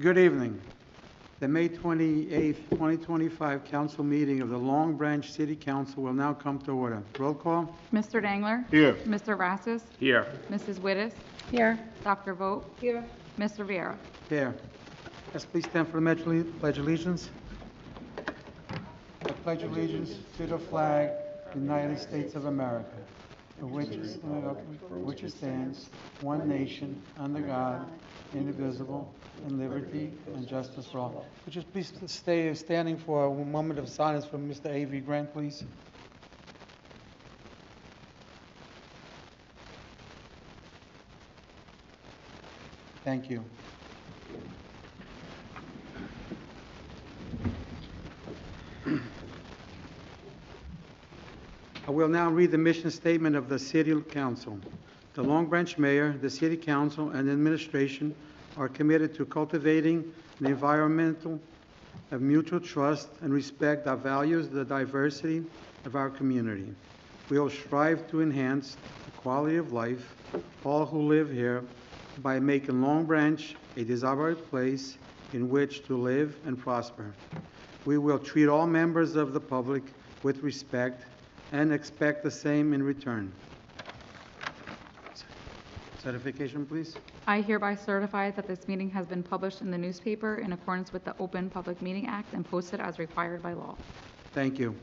Good evening. The May 28th, 2025 council meeting of the Long Branch City Council will now come to order. Roll call? Mr. Dangler? Here. Mr. Rassus? Here. Mrs. Wittes? Here. Dr. Vogt? Here. Mr. Viera? Here. Yes, please stand for the pledge alle- pledge allegiance. I pledge allegiance to the flag, of the United States of America, for which is- for which it stands, one nation, under God, indivisible, in liberty and justice for all. Would you please stay standing for a moment of silence for Mr. Avery Grant, please? Thank you. I will now read the mission statement of the City Council. The Long Branch Mayor, the City Council, and administration are committed to cultivating an environmental of mutual trust and respect that values the diversity of our community. We will strive to enhance the quality of life for all who live here by making Long Branch a desirable place in which to live and prosper. We will treat all members of the public with respect and expect the same in return. Certification, please. I hereby certify that this meeting has been published in the newspaper in accordance with the Open Public Meeting Act and posted as required by law. Thank you.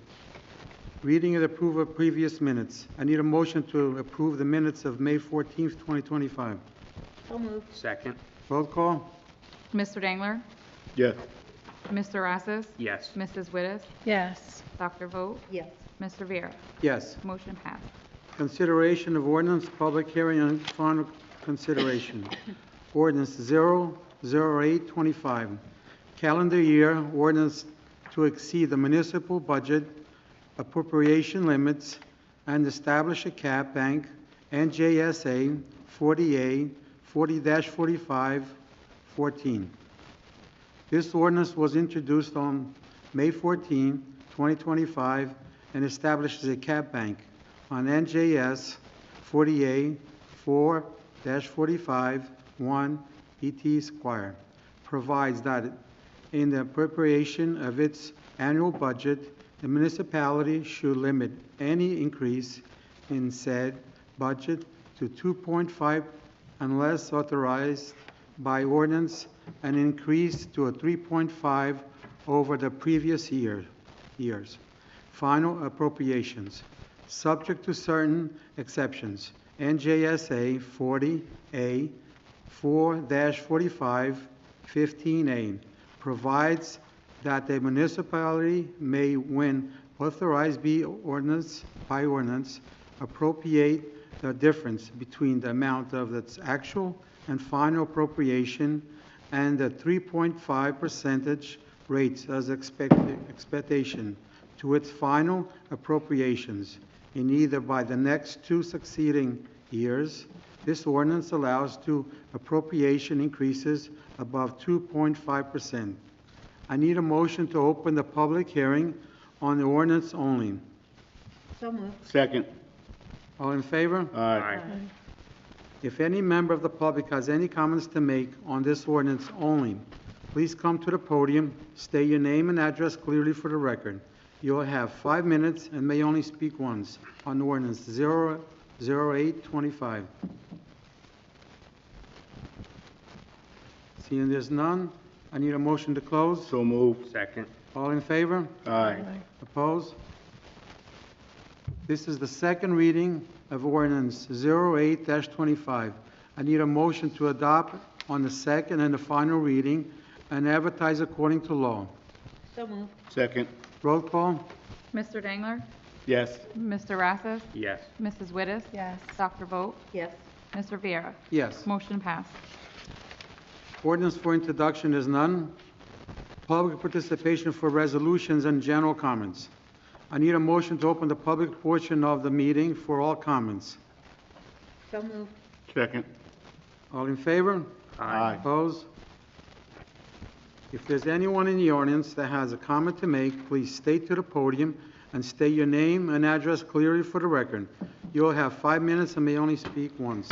Reading and approval of previous minutes. I need a motion to approve the minutes of May 14th, 2025. So moved. Second. Roll call? Mr. Dangler? Yes. Mr. Rassus? Yes. Mrs. Wittes? Yes. Dr. Vogt? Yes. Mr. Viera? Yes. Motion passed. Consideration of ordinance, public hearing, and final consideration. Ordinance 00825, calendar year ordinance to exceed the municipal budget appropriation limits and establish a cap bank NJSA 40A 40-45-14. This ordinance was introduced on May 14, 2025, and establishes a cap bank on NJS 48 4-45-1 ET Squire. E Provides that in the appropriation of its annual budget, the municipality should limit any increase in said budget to 2.5 unless authorized by ordinance and increase to a 3.5 over the previous year, years. Final appropriations, subject to certain exceptions. NJSA 40A 4-45-15A provides that the municipality may, when authorized be ordinance, by ordinance, appropriate the difference between the amount of its actual and final appropriation and the 3.5 percentage rates as expected, expectation to its final appropriations in either by the next two succeeding years. This ordinance allows to appropriation increases above 2.5%. I need a motion to open the public hearing on the ordinance only. So moved. Second. All in favor? Aye. If any member of the public has any comments to make on this ordinance only, please come to the podium, state your name and address clearly for the record. You will have five minutes and may only speak once on ordinance 00825. Seeing there's none, I need a motion to close. So moved. Second. All in favor? Aye. Opposed? This is the second reading of ordinance 08-25. I need a motion to adopt on the second and the final reading and advertise according to law. So moved. Second. Roll call? Mr. Dangler? Yes. Mr. Rassus? Yes. Mrs. Wittes? Yes. Dr. Vogt? Yes. Mr. Viera? Yes. Motion passed. Ordinance for introduction is none. Public participation for resolutions and general comments. I need a motion to open the public portion of the meeting for all comments. So moved. Second. All in favor? Aye. Opposed? If there's anyone in the audience that has a comment to make, please stay to the podium and state your name and address clearly for the record. You'll have five minutes and may only speak once.